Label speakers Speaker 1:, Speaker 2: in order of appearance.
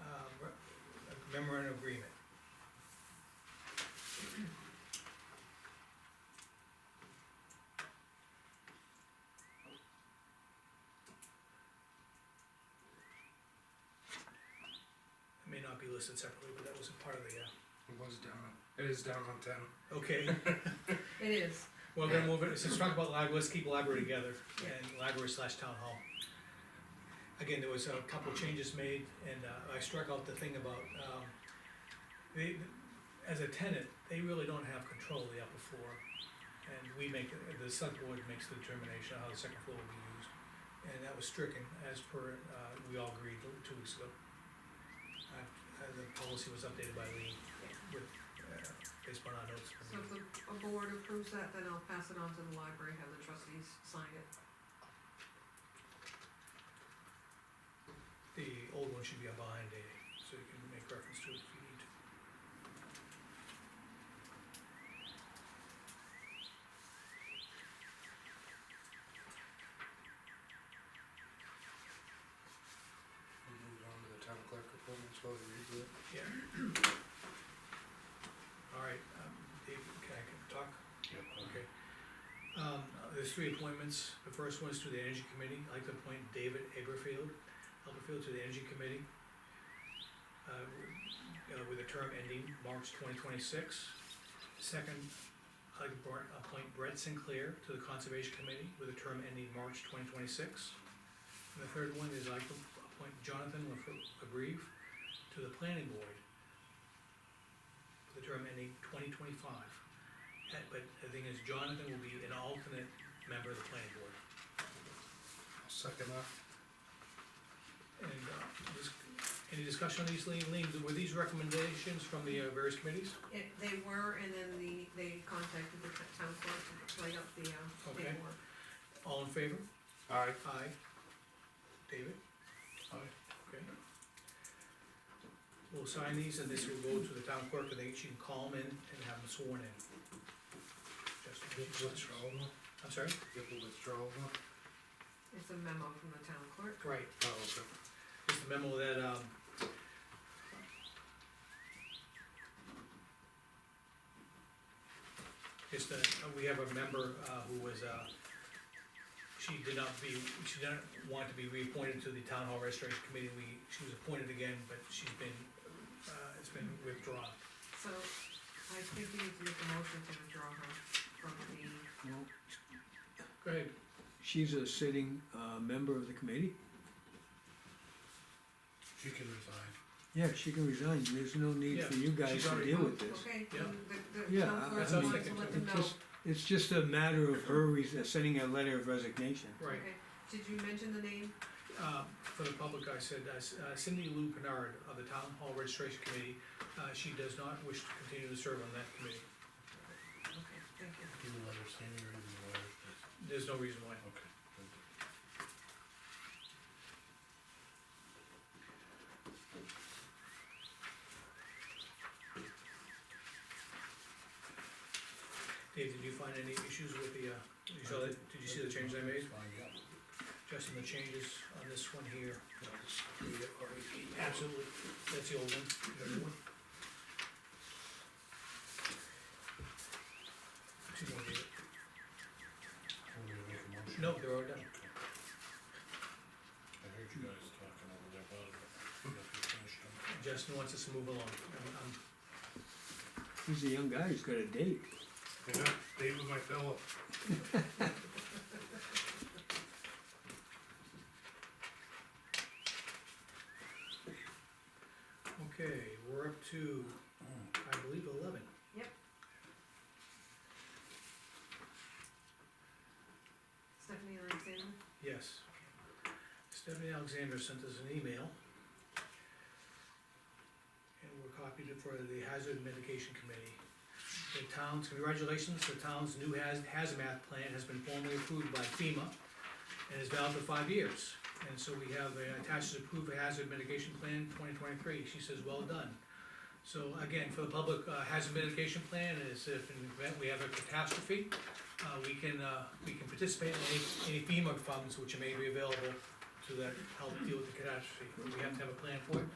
Speaker 1: um, memorandum agreement. It may not be listed separately, but that wasn't part of the, uh,
Speaker 2: It was down, it is down on ten.
Speaker 1: okay,
Speaker 3: It is,
Speaker 1: well, then move it, since we talking about library, let's keep library together, and library slash town hall. Again, there was a couple changes made, and uh, I struck out the thing about, um, they, as a tenant, they really don't have control of the upper floor. And we make, the select board makes the determination how the second floor will be used, and that was stricken as per, uh, we all agreed two weeks ago. Uh, the policy was updated by Lee with, uh, based upon our notes. from
Speaker 3: so
Speaker 1: the-
Speaker 3: if the a board approves that, then I'll pass it on to the library, have the trustees sign it.
Speaker 1: The old one should be behind A, eh, so you can make reference to it if you need to.
Speaker 2: We moved on to the town clerk report, so we read it.
Speaker 1: Yeah. All right, um, Dave, can I can talk? Okay. Um, there's three appointments, the first one is to the Energy Committee, I'd like to appoint David Aberfield, Aberfield to the Energy Committee. uh, w- uh, with a term ending March twenty twenty-six. Second, I'd like to appoint- appoint Brett Sinclair to the Conservation Committee with a term ending March twenty twenty-six. And the third one is I'd like to appoint Jonathan Lefr- Lebreve to the Planning Board with a term ending twenty twenty-five. But the thing is Jonathan will be an alternate member of the planning board.
Speaker 2: I'll second that.
Speaker 1: And, uh, this, any discussion on these, Lean, Lean, were these recommendations from the uh, various committees?
Speaker 3: It, they were, and then the, they contacted the t- town clerk to play up the, um,
Speaker 1: Okay.
Speaker 3: paperwork.
Speaker 1: All in favor?
Speaker 2: Aye.
Speaker 1: Aye. David?
Speaker 2: Aye.
Speaker 1: Okay. We'll sign these and this will go to the town clerk and they, she can call them in and have them sworn in.
Speaker 2: Get
Speaker 1: Just,
Speaker 2: the withdrawal, one.
Speaker 1: I'm sorry?
Speaker 2: get the withdrawal. one.
Speaker 3: It's a memo from the town clerk.
Speaker 1: Right,
Speaker 2: Oh, okay.
Speaker 1: Just a memo that, um. Just that, uh, we have a member, uh, who was, uh, she did not be, she didn't want to be reappointed to the town hall registration committee, we, she was appointed again, but she's been, uh, it's been withdrawn.
Speaker 3: So I think we need to make a motion to withdraw her from the,
Speaker 4: Well,
Speaker 1: Go ahead.
Speaker 4: She's a sitting, uh, member of the committee?
Speaker 2: She can resign.
Speaker 4: Yeah, she can resign, there's no need for you guys
Speaker 1: she's
Speaker 4: to
Speaker 1: already
Speaker 4: deal with this.
Speaker 3: okay,
Speaker 1: Yeah.
Speaker 3: the, the
Speaker 4: Yeah,
Speaker 3: town
Speaker 4: I-
Speaker 3: clerk
Speaker 1: I
Speaker 3: wants to
Speaker 1: think
Speaker 3: let
Speaker 1: it-
Speaker 3: them
Speaker 4: it
Speaker 3: know.
Speaker 4: just- It's just a matter of her res- uh, sending a letter of resignation.
Speaker 1: Right,
Speaker 3: Okay. Did you mention the name?
Speaker 1: uh, for the public, I said, uh, S- uh, Cindy Lou Bernard of the town hall registration committee, uh, she does not wish to continue to serve on that committee,
Speaker 3: Okay, thank you.
Speaker 2: Do you understand your letter?
Speaker 1: there's no reason why.
Speaker 2: Okay.
Speaker 1: Dave, did you find any issues with the, uh, you saw that, did you see the changes I made?
Speaker 2: Fine, yeah.
Speaker 1: Justin, the changes on this one here,
Speaker 2: I'll just read it or repeat it.
Speaker 1: absolutely, that's the old one. the other one. Two more, David.
Speaker 2: Want me to make a motion?
Speaker 1: No, they're all done.
Speaker 2: I heard you guys talking over there about it. but I guess we finished them.
Speaker 1: Justin wants us to move along. I'm- I'm-
Speaker 4: He's a young guy, he's got a date.
Speaker 2: Yeah, David, my fellow.
Speaker 1: Okay, we're up to, I believe, eleven.
Speaker 3: Stephanie Alexander?
Speaker 1: Yes. Stephanie Alexander sent us an email. And we're copied it for the Hazard Mitigation Committee. The town's, congratulations, the town's new haz- hazmat plan has been formally approved by FEMA and is valid for five years. And so we have uh, attached to approved hazard mitigation plan twenty twenty-three, she says, well done. So again, for the public, uh, hazard mitigation plan is if in the event we have a catastrophe, uh, we can, uh, we can participate in any, any FEMA funds which may be available to that, help deal with the catastrophe. We have to have a plan for it,